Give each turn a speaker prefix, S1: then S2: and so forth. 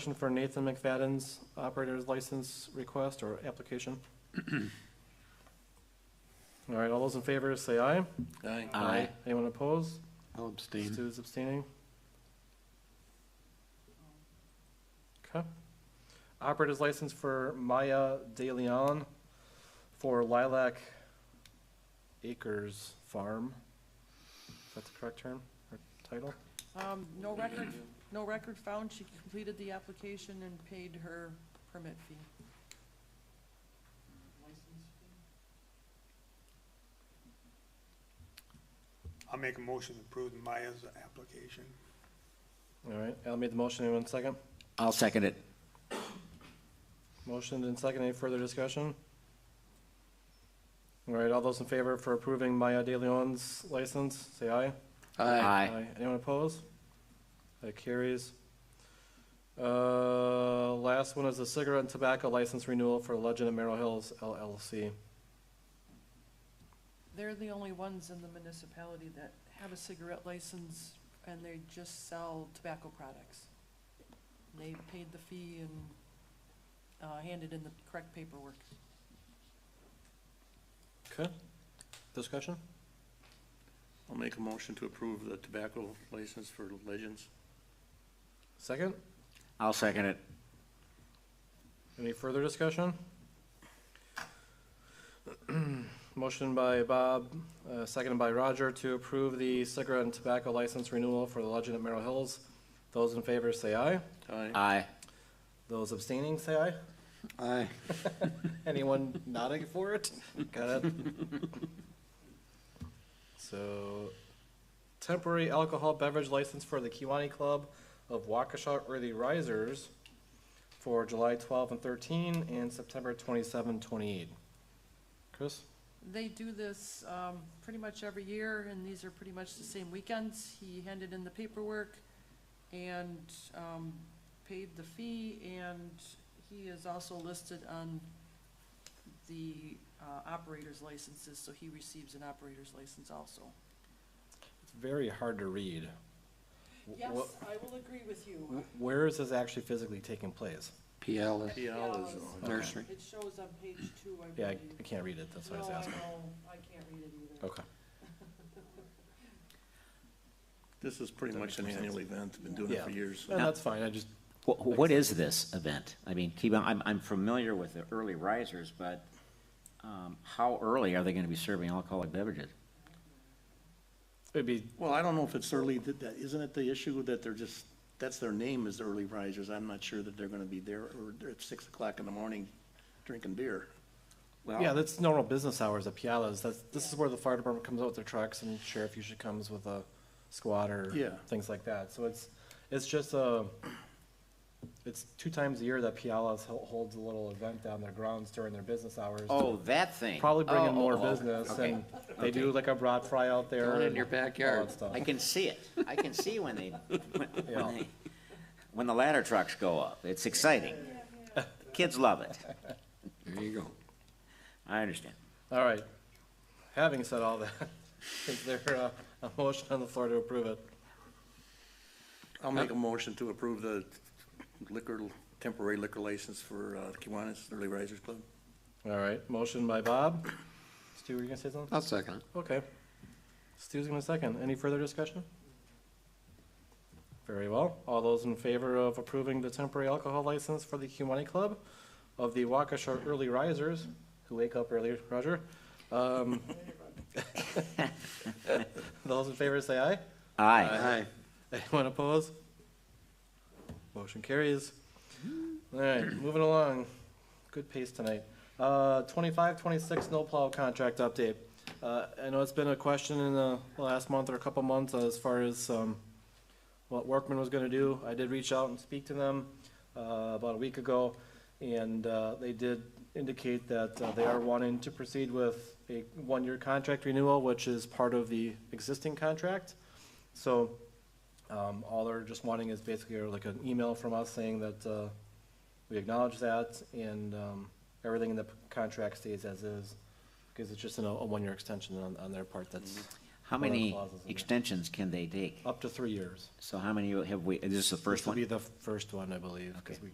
S1: Question for Nathan McFadden's operator's license request or application. All right, all those in favor, say aye.
S2: Aye.
S1: Anyone opposed?
S3: I'll abstain.
S1: Stu is abstaining. Okay. Operator's license for Maya De Leon for Lilac Acres Farm. Is that the correct term or title?
S4: Um, no record, no record found. She completed the application and paid her permit fee.
S5: I'll make a motion to approve Maya's application.
S1: All right, Al made the motion. Anyone second?
S2: I'll second it.
S1: Motion and second, any further discussion? All right, all those in favor for approving Maya De Leon's license, say aye. Anyone opposed? That carries. Uh, last one is the cigarette and tobacco license renewal for Legend of Merrill Hills LLC.
S4: They're the only ones in the municipality that have a cigarette license and they just sell tobacco products. They paid the fee and, uh, handed in the correct paperwork.
S1: Okay, discussion?
S3: I'll make a motion to approve the tobacco license for Legends.
S1: Second,
S2: I'll second it.
S1: any further discussion? Motion by Bob, uh, seconded by Roger to approve the cigarette and tobacco license renewal for the Legend at Merrill Hills. Those in favor say aye.
S3: Aye.
S2: Aye.
S1: Those abstaining say aye.
S3: Aye.
S1: Anyone nodding for it? Got it. So, temporary alcohol beverage license for the Kiwani Club of Waukesha Early Risers for July twelve and thirteen and September 27, 28. Chris?
S4: They do this, um, pretty much every year, and these are pretty much the same weekends. He handed in the paperwork and, um, paid the fee, and he is also listed on the, uh, operator's licenses, so he receives an operator's license also.
S1: It's very hard to read. Wh- wh-
S4: I will agree with you.
S1: wh- Where is this actually physically taking place?
S3: PL is
S4: PL is
S3: nursery.
S4: It shows on page two, I
S1: Yeah, I I can't read it, that's why I was asking.
S4: I can't read it either.
S1: Okay.
S6: This is pretty
S1: That
S6: much
S1: makes
S6: an
S1: more sense.
S6: annual event, been doing it for
S1: Yeah.
S6: years.
S1: And that's fine, I just,
S2: What, what is this event? I mean, keep, on- I'm, I'm familiar with the early risers, but, um, how early are they gonna be serving alcoholic beverages?
S1: it'd be,
S6: Well, I don't know if it's early, that, that- isn't it the issue that they're just, that's their name is the early risers? I'm not sure that they're gonna be there, or they're at six o'clock in the morning drinking beer.
S1: yeah, that's normal business hours at Pialas, that's, this is where the fire department comes out with their trucks and sheriff usually comes with a squad or
S6: Yeah.
S1: things like that, so it's, it's just a, it's two times a year that Pialas hol- holds a little event down their grounds during their business hours.
S2: Oh, that thing.
S1: Probably bring
S2: Oh,
S1: in more
S2: oh, oh,
S1: business
S2: okay.
S1: and they do like a broad fry out there.
S3: Down in
S1: and
S3: your
S1: all
S3: backyard.
S1: that stuff.
S2: I can see it. I can see when they, when,
S1: Yeah.
S2: when they, when the ladder trucks go up. It's exciting. Kids love it.
S3: There you go.
S2: I understand.
S1: All right. Having said all that, is there a, a motion on the floor to approve it?
S6: I'll make a motion to approve the liquor, temporary liquor license for, uh, Kiwanis Early Risers Club.
S1: All right, motion by Bob. Stu, were you gonna say something?
S3: I'll second it.
S1: Okay. Stu's gonna second. Any further discussion? Very well. All those in favor of approving the temporary alcohol license for the Humani Club of the Waukesha Early Risers, who wake up early, Roger? um, Those in favor say aye.
S2: Aye.
S1: Anyone opposed? Motion carries. All right, moving along. Good pace tonight. Uh, twenty-five, twenty-six snowplow contract update. Uh, I know it's been a question in the last month or a couple months as far as, um, what Workman was gonna do. I did reach out and speak to them, uh, about a week ago, and, uh, they did indicate that uh, they are wanting to proceed with a one-year contract renewal, which is part of the existing contract. So, um, all they're just wanting is basically like an email from us saying that, uh, we acknowledge that and, um, everything in the p- contract stays as is. Cause it's just an- a, a one-year extension on, on their part that's,
S2: How
S1: Well, that
S2: many
S1: clause is in there.
S2: extensions can they take?
S1: Up to three years.
S2: So how many have we, is this the first
S1: This will
S2: one?
S1: be the first one, I believe, because we